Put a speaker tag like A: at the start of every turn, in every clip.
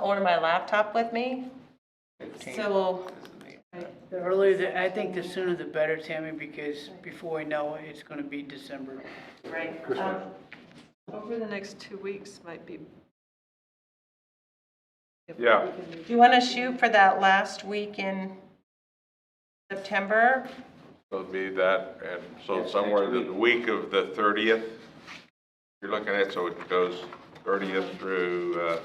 A: order my laptop with me, so,
B: The earlier, the- I think the sooner the better, Tammy, because before we know it, it's going to be December.
A: right.
C: Christmas.
A: um,
D: Over the next two weeks might be. if
C: Yeah.
D: we can
A: You want to shoot for that last week in September?
C: So it'd be that, and so somewhere the week of the 30th, you're looking at, so it goes 30th through, uh,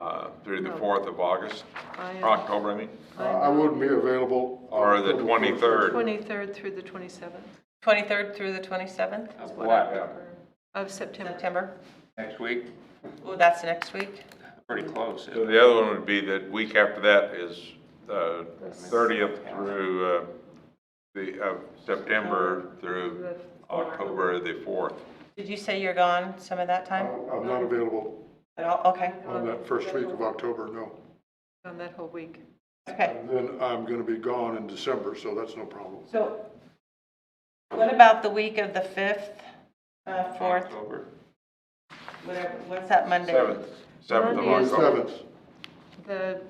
C: uh, through the 4th of August,
D: I am-
C: or October, I mean,
E: I I wouldn't be available. uh,
C: or the
E: October
C: 23rd.
D: 23rd through the 27th
A: 23rd through the 27th
C: Of what? Yeah.
D: of September.
A: September?
F: Next week,
A: Oh, that's next week.
F: pretty close.
C: So the other one would be that week after that is uh, 30th through uh, the, uh, September through October the 4th.
A: Did you say you're gone some of that
E: 23rd.
A: time
E: I- I'm not available
A: at all? Okay,
E: on that first week of October, no.
D: On that whole week.
A: okay.
E: And then I'm going to be gone in December, so that's no problem.
A: So what about the week of the 5th, uh, 4th,
C: October.
A: whatever, what's that Monday?
C: 7th, 7th of
D: Monday is-
C: October.
E: Seventh,
D: The,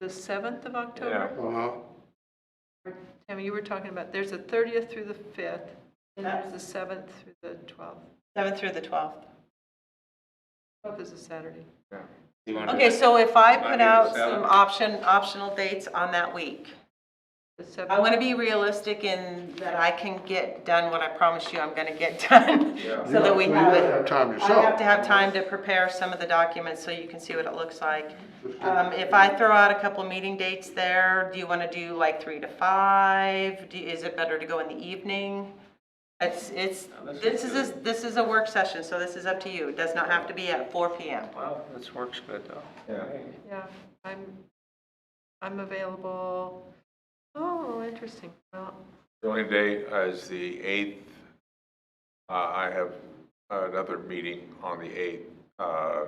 D: the 7th of October?
E: uh-huh,
D: Tammy, you were talking about, there's a 30th through the 5th, and there's the 7th through the 12th.
A: 7th through the 12th.
D: 12th is a Saturday.
F: You wanna-
A: Okay, so if I
C: Monday
A: put
C: the
A: out
C: 7th.
A: some option, optional dates on that week,
D: The 7th.
A: I want to be realistic in that I can get done what I promise you I'm going to get done. So that we
E: You
A: have it.
E: have to have time
A: I have to
E: yourself.
A: have time to prepare some of the documents so you can see what it looks like. Um, if I throw out a couple meeting dates there, do you want to do like three to five? Do, is it better to go in the evening? It's, it's, this is, a- this is a work session, so this is up to you. It does not have to be at four PM.
F: Well, this works good, though.
C: Yeah.
D: Yeah, I'm, I'm available. Oh, interesting. Well,
C: The only day is the 8th. Uh, I have another meeting on the 8th, uh,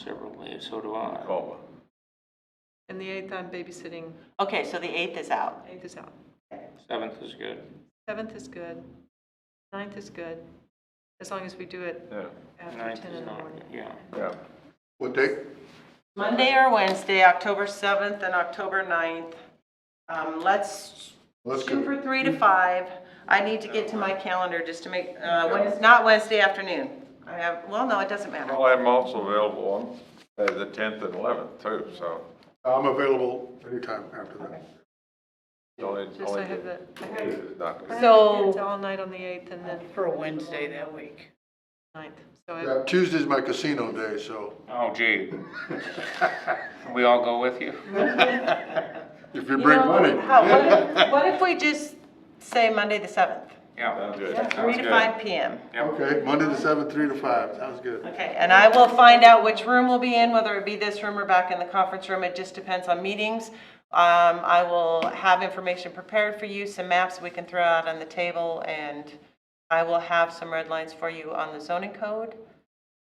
F: Several days, so do I.
C: Tacoma.
D: and the 8th, I'm babysitting.
A: Okay, so the eighth is out.
D: 8th is out.
F: Seventh is good.
D: 7th is good. 9th is good, as long as we do it
C: Yeah,
D: after
F: Ninth
D: 10
F: is
D: in the
F: not,
D: morning.
F: yeah.
C: yeah.
E: What date?
A: Monday or Wednesday, October seventh and October 9th. Um, let's
E: Let's
A: shoot
E: go.
A: for three to five. I need to get to my calendar just to make, uh, when it's not Wednesday afternoon. I have, well, no, it doesn't matter.
C: Well, I'm also available on uh, the 10th and 11th too, so.
E: I'm available anytime after that.
C: it's only-
D: Just
C: only
D: I have
C: the
D: that, I have-
C: 8th is not
D: I
C: good.
D: have
A: So-
D: kids all night on the 8th and then
B: For a Wednesday that week.
D: 9th, so I-
E: Yeah, Tuesday's my casino day, so
F: Oh gee. Can we all go with you?
E: if you bring money.
A: How- Oh, What if- what if we just say Monday the 7th,
C: Sounds
F: Yeah.
C: good.
A: three to
F: good.
A: five PM?
E: Okay, Monday the seventh, three to five, sounds good.
A: Okay, and I will find out which room we'll be in, whether it be this room or back in the conference room. It just depends on meetings. Um, I will have information prepared for you, some maps we can throw out on the table, and I will have some red lines for you on the zoning code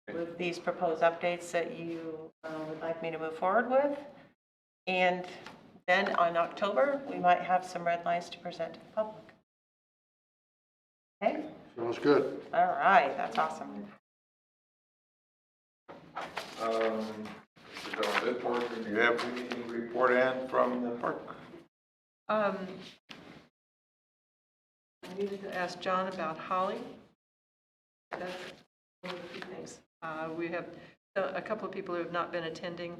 A: with these proposed updates that you uh, would like me to move forward with. And then on October, we might have some red lines to present to the public. Okay?
E: Sounds good.
A: All right, that's awesome.
C: Um, so this portion, do you have anything to report in from the park?
D: Um, I needed to ask John about Holly. That's one of the few things. Uh, We have uh, a couple of people who have not been attending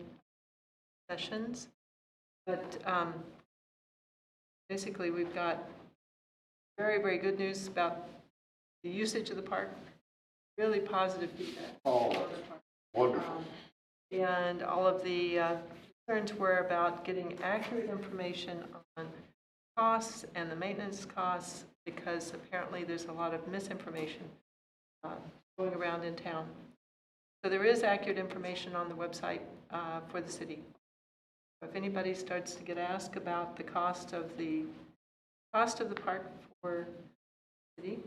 D: sessions, but um, basically, we've got very, very good news about the usage of the park, really positive feedback.
E: Oh, wonderful.
D: And all of the uh, concerns were about getting accurate information on costs and the maintenance costs, because apparently there's a lot of misinformation uh, going around in town. So there is accurate information on the website uh, for the city. If anybody starts to get asked about the cost of the, cost of the park for the city,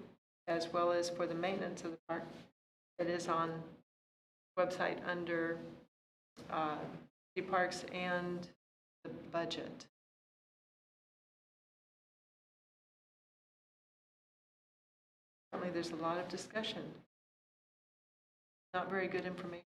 D: as well as for the maintenance of the park, it is on website under uh, the parks and the budget. Apparently, there's a lot of discussion. Not very good information.